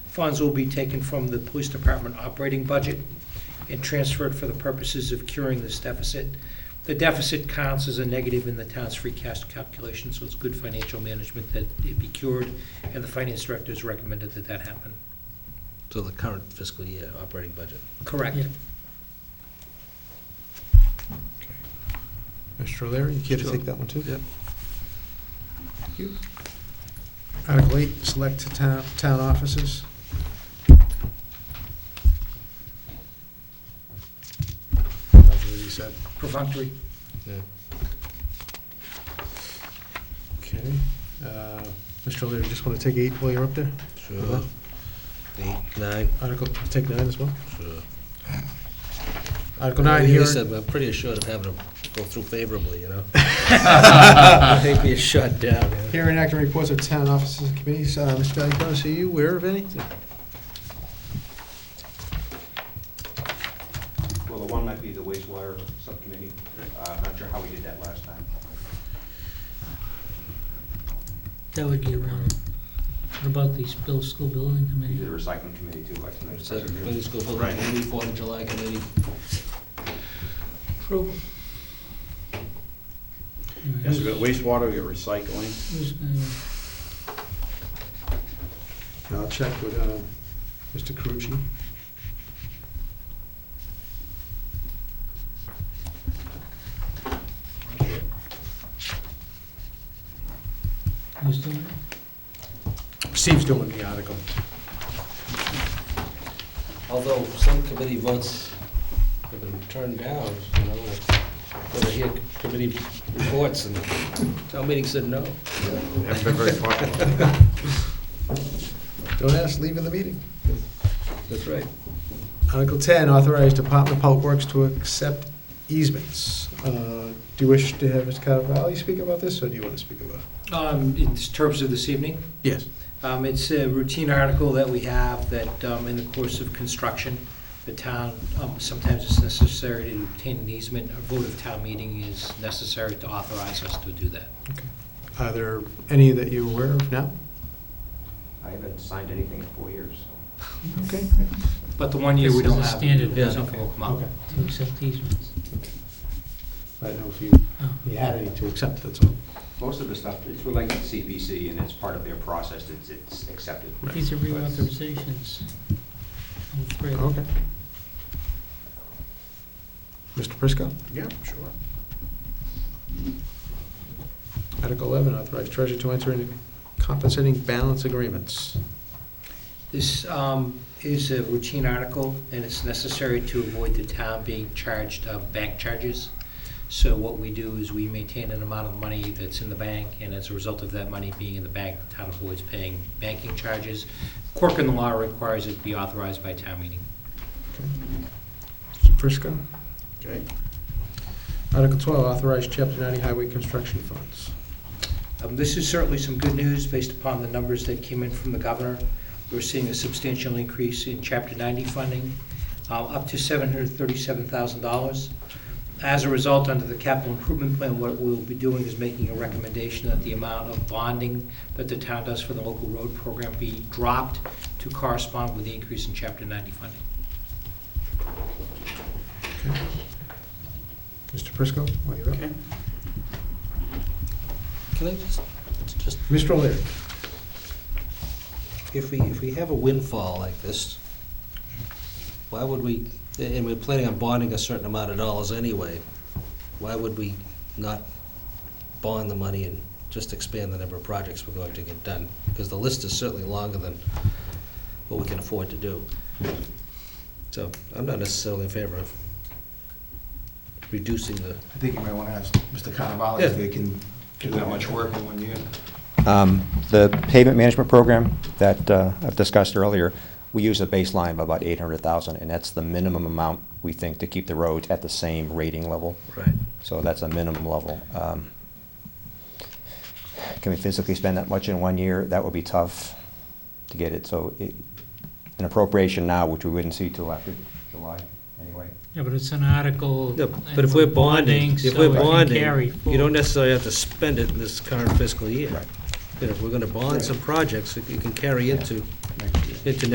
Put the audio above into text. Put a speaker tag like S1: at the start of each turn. S1: Funds will be taken from the police department operating budget and transferred for the purposes of curing this deficit. The deficit counts as a negative in the town's free cash calculation, so it's good financial management that it be cured, and the finance director has recommended that that happen.
S2: So the current fiscal year operating budget.
S1: Correct.
S3: Yeah.
S4: Mr. O'Leary, you care to
S2: Sure.
S4: take that one too?
S2: Yep.
S4: Thank you. Article eight, select to town, town offices. Nothing to be said.
S1: Perfunctory.
S2: Yeah.
S4: Okay. Uh, Mr. O'Leary, just want to take eight while you're up there?
S2: Sure. Eight, nine,
S4: Article, take nine as well?
S2: sure.
S4: Article nine,
S2: He
S4: here.
S2: said, I'm pretty assured of having them go through favorably, you know? They'd be shut down, yeah.
S4: Hearing act on reports of town offices and committees. Uh, Mr. Valiakonis, are you aware of any?
S5: Well, the one might be the wastewater subcommittee. Uh, I'm not sure how we did that last time.
S3: That would be around, what about the bill, school building
S5: We did a
S3: committee?
S5: recycling committee too, I think.
S2: Is that committee, school building
S5: Right.
S2: committee, Fourth of July committee?
S3: Approval.
S6: Yes, we got wastewater, we got recycling.
S3: Who's uh, gonna-
S4: I'll check with uh, Mr. Carucci.
S3: Who's doing it?
S4: Steve's doing the article.
S2: Although some committee votes have been turned down, you know, when I hear committee reports and town meeting said no.
S6: Haven't been very popular.
S4: Don't ask, leave in the meeting.
S2: That's right.
S4: Article 10, authorize Department of Public Works to accept easements. Uh, Do you wish to have Mr. Cavalli speak about this, or do you want to speak about? it?
S1: Um, In terms of this evening,
S4: Yes.
S1: Um, It's a routine article that we have that um, in the course of construction, the town, um, sometimes it's necessary to obtain an easement, a vote of town meeting is necessary to authorize us to do that.
S4: Are there any that you're aware of now?
S5: I haven't signed anything in four years, so.
S4: Okay.
S1: But the one year we
S3: This is
S1: don't
S3: a
S1: have.
S3: standard
S1: yeah,
S3: one.
S1: nothing will come out.
S4: Okay.
S3: To accept easements.
S4: I don't know if you
S3: Oh.
S4: you had any to accept, that's all.
S5: Most of the stuff, it's related to CPC and it's part of their process, it's, it's accepted.
S3: These are
S5: But-
S3: reauthorizations. All three of them.
S4: Okay. Mr. Prisco?
S6: Yeah, sure.
S4: Article 11, authorize treasurer to enter into compensating balance agreements.
S1: This um, is a routine article, and it's necessary to avoid the town being charged uh, bank charges. So what we do is we maintain an amount of money that's in the bank, and as a result of that money being in the bank, the town avoids paying banking charges. Quirk in the law requires it be authorized by town meeting.
S4: Mr. Prisco?
S6: Okay.
S4: Article 12, authorize chapter 90 highway construction funds.
S1: Um, This is certainly some good news based upon the numbers that came in from the governor. We're seeing a substantial increase in Chapter 90 funding, uh, up to $737,000. As a result, under the capital improvement plan, what we'll be doing is making a recommendation that the amount of bonding that the town does for the local road program be dropped to correspond with the increase in Chapter 90 funding.
S4: Mr. Prisco, while you're up.
S6: Okay.
S2: Can I just, just,
S4: Mr. O'Leary.
S2: if we, if we have a windfall like this, why would we, and we're planning on bonding a certain amount of dollars anyway, why would we not bond the money and just expand the number of projects we're going to get done? Because the list is certainly longer than what we can afford to do. So I'm not necessarily in favor of reducing the
S7: I think you might want to ask Mr. Cannavale
S2: Yeah.
S7: if they can do that much work in one year.
S8: Um, The pavement management program that uh, I've discussed earlier, we use a baseline of about 800,000, and that's the minimum amount we think to keep the roads at the same rating level.
S2: Right.
S8: So that's a minimum level. Um, Can we physically spend that much in one year? That would be tough to get it, so it- an appropriation now, which we wouldn't see till after July, anyway.
S3: Yeah, but it's an article.
S2: No,
S3: and
S2: but if we're bonding, if
S3: so
S2: we're
S3: it can
S2: bonding,
S3: carry
S2: you
S3: forward.
S2: don't necessarily have to spend it in this current fiscal year.
S8: Right.
S2: You know, if we're gonna bond some projects, you can carry into, into